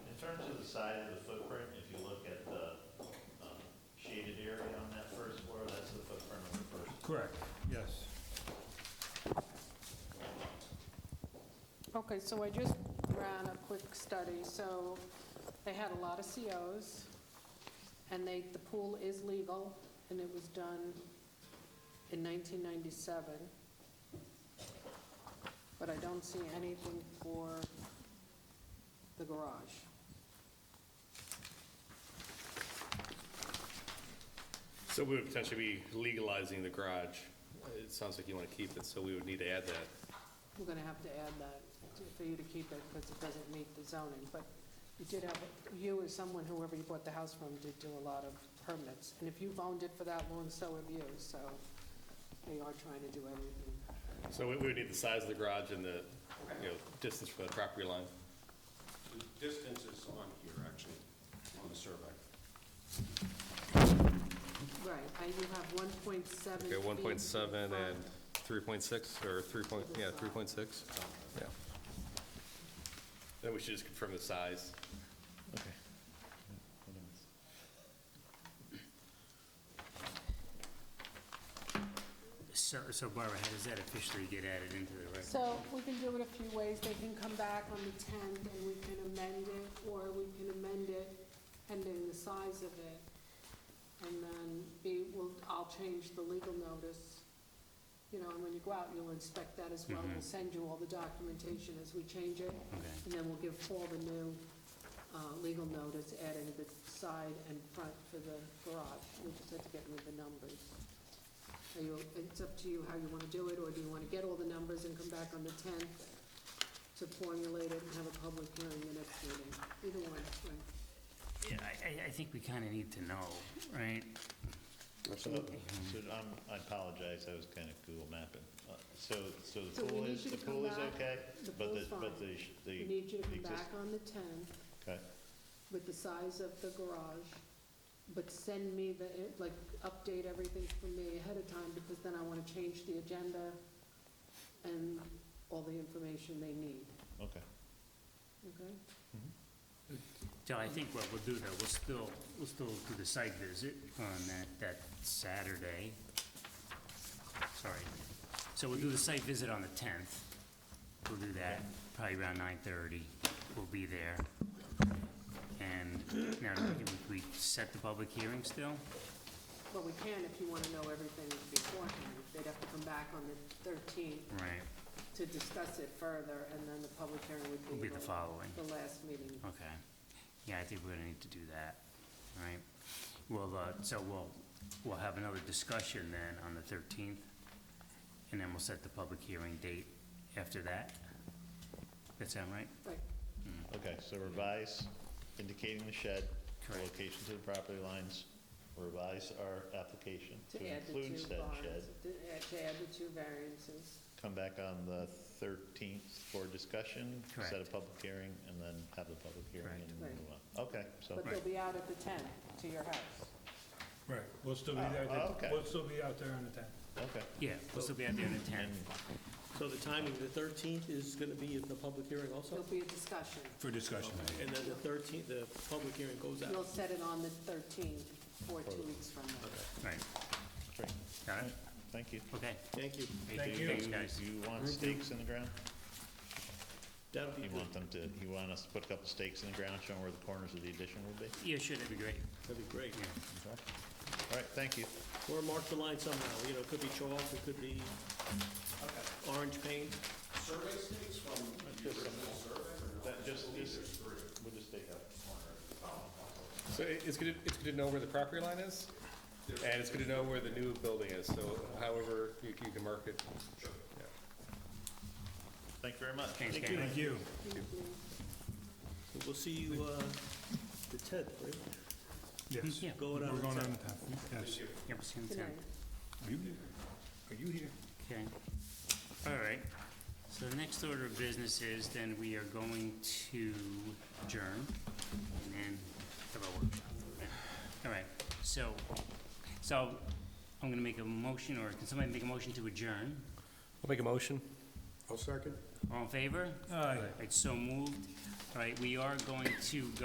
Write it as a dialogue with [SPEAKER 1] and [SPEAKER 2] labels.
[SPEAKER 1] turn to the side of the footprint, if you look at the um, shaded area on that first floor, that's the footprint of the first.
[SPEAKER 2] Correct, yes.
[SPEAKER 3] Okay, so I just ran a quick study, so they had a lot of COs, and they, the pool is legal, and it was done in 1997. But I don't see anything for the garage.
[SPEAKER 4] So we would potentially be legalizing the garage. It sounds like you want to keep it, so we would need to add that.
[SPEAKER 3] I'm gonna have to add that to- for you to keep it, because it doesn't meet the zoning, but you did have, you as someone, whoever you bought the house from, did do a lot of permits, and if you've owned it for that long, so have you, so they are trying to do everything.
[SPEAKER 4] So we we would need the size of the garage and the, you know, distance from the property line.
[SPEAKER 5] The distance is on here, actually, on the survey.
[SPEAKER 3] Right, I, you have one point seven
[SPEAKER 4] Okay, 1.7 and 3.6, or 3 point, yeah, 3.6? Yeah. Then we should just confirm the size.
[SPEAKER 2] Okay.
[SPEAKER 6] So, so Barbara, how does that officially get added into the record?
[SPEAKER 3] So we can do it a few ways, they can come back on the tenth, and we can amend it, or we can amend it pending the size of it. And then be, well, I'll change the legal notice, you know, and when you go out, you'll inspect that as well. We'll send you all the documentation as we change it,
[SPEAKER 6] Okay,
[SPEAKER 3] and then we'll give Paul the new, uh, legal notice adding the side and front for the garage. We just have to get rid of the numbers. Are you, it's up to you how you wanna do it, or do you wanna get all the numbers and come back on the tenth to formulate it and have a public hearing the next meeting? Either one, right?
[SPEAKER 6] yeah, I, I, I think we kind of need to know, right?
[SPEAKER 1] Absolutely. So I'm- I apologize, I was kind of Google mapping. Uh, So, so
[SPEAKER 3] So
[SPEAKER 1] the
[SPEAKER 3] we
[SPEAKER 1] pool
[SPEAKER 3] need
[SPEAKER 1] is,
[SPEAKER 3] you
[SPEAKER 1] the
[SPEAKER 3] to come
[SPEAKER 1] pool is
[SPEAKER 3] back.
[SPEAKER 1] okay?
[SPEAKER 3] The
[SPEAKER 1] but
[SPEAKER 3] pool's
[SPEAKER 1] But
[SPEAKER 3] fine.
[SPEAKER 1] the, sh- the.
[SPEAKER 3] We need you to
[SPEAKER 1] the
[SPEAKER 3] come
[SPEAKER 1] exist-
[SPEAKER 3] back on the tenth
[SPEAKER 1] Okay,
[SPEAKER 3] with the size of the garage, but send me the, like, update everything for me ahead of time, because then I wanna change the agenda and all the information they need,
[SPEAKER 1] okay.
[SPEAKER 3] okay?
[SPEAKER 6] So I think what we'll do though, we'll still, we'll still do the site visit on that, that Saturday. Sorry. So we'll do the site visit on the tenth. We'll do that, probably around nine thirty. We'll be there. And now, do we, we set the public hearing still?
[SPEAKER 3] But we can if you wanna know everything beforehand, they'd have to come back on the thirteenth
[SPEAKER 6] Right,
[SPEAKER 3] to discuss it further, and then the public hearing would be.
[SPEAKER 6] will be the following.
[SPEAKER 3] The last meeting.
[SPEAKER 6] Okay. Yeah, I think we're gonna need to do that, all right? Well, uh, so we'll, we'll have another discussion then on the thirteenth, and then we'll set the public hearing date after that. That sound right?
[SPEAKER 3] Right,
[SPEAKER 1] Okay, so revise indicating the shed, the
[SPEAKER 6] Correct.
[SPEAKER 1] location to the property lines, revise our application
[SPEAKER 3] to
[SPEAKER 1] to
[SPEAKER 3] add the two
[SPEAKER 1] include said shed.
[SPEAKER 3] barns, to add- to add the two variances.
[SPEAKER 1] Come back on the 13th for discussion. Set a
[SPEAKER 6] Correct.
[SPEAKER 1] public hearing and then have the public hearing
[SPEAKER 6] Correct.
[SPEAKER 1] and
[SPEAKER 3] Right.
[SPEAKER 1] move on. Okay, so.
[SPEAKER 3] But they'll be out at the tenth to your house.
[SPEAKER 2] Right, we'll still be
[SPEAKER 1] Oh,
[SPEAKER 2] there,
[SPEAKER 1] oh, okay.
[SPEAKER 2] then- we'll still be out there on the tenth.
[SPEAKER 1] Okay.
[SPEAKER 6] Yeah, we'll still be out there on the
[SPEAKER 1] And
[SPEAKER 6] tenth.
[SPEAKER 7] So the timing, the 13th is going to be in the public hearing also?
[SPEAKER 3] There'll be a discussion.
[SPEAKER 2] For discussion.
[SPEAKER 7] And then the 13th, the public hearing goes
[SPEAKER 3] You'll
[SPEAKER 7] out?
[SPEAKER 3] set it on the 13th, or two weeks from now.
[SPEAKER 6] Right,
[SPEAKER 1] great.
[SPEAKER 6] got it?
[SPEAKER 1] Thank you.
[SPEAKER 6] Okay.
[SPEAKER 7] Thank you.
[SPEAKER 2] Thank you.
[SPEAKER 6] Thanks, guys.
[SPEAKER 1] Do you want stakes in the ground?
[SPEAKER 7] That'll be
[SPEAKER 1] You
[SPEAKER 7] good.
[SPEAKER 1] want them to, you want us to put a couple stakes in the ground showing where the corners of the addition would be?
[SPEAKER 6] Yeah, sure, that'd be great.
[SPEAKER 7] That'd be great.
[SPEAKER 1] Okay. All right, thank you.
[SPEAKER 7] Or mark the line somehow, you know, it could be chalk, it could be orange paint.
[SPEAKER 5] Survey states from the original survey, or no?
[SPEAKER 1] That just, just, we'll just take out.
[SPEAKER 4] So it- it's good, to- it's good to know where the property line is, and it's good to know where the new building is, so however you you can mark it. Yeah.
[SPEAKER 1] Thank you very much.
[SPEAKER 6] Thanks,
[SPEAKER 1] Thank
[SPEAKER 6] guys.
[SPEAKER 1] you.
[SPEAKER 2] Thank you.
[SPEAKER 7] We'll see you uh, the 10th, right?
[SPEAKER 2] Yes.
[SPEAKER 6] Yeah,
[SPEAKER 7] Going out
[SPEAKER 2] We're
[SPEAKER 7] on the
[SPEAKER 2] going
[SPEAKER 7] 10th.
[SPEAKER 2] on the tenth, yes.
[SPEAKER 6] yeah, we'll see you on the
[SPEAKER 3] Good night.
[SPEAKER 6] tenth.
[SPEAKER 2] Are you here? Are you here?
[SPEAKER 6] Okay. All right. So the next order of business is then we are going to adjourn and then have a workshop. All right. So, so I'm going to make a motion, or can somebody make a motion to adjourn?
[SPEAKER 4] I'll make a motion.
[SPEAKER 5] I'll second.
[SPEAKER 6] All in favor?
[SPEAKER 2] Aye.
[SPEAKER 6] All right, so moved. All right, we are going to go.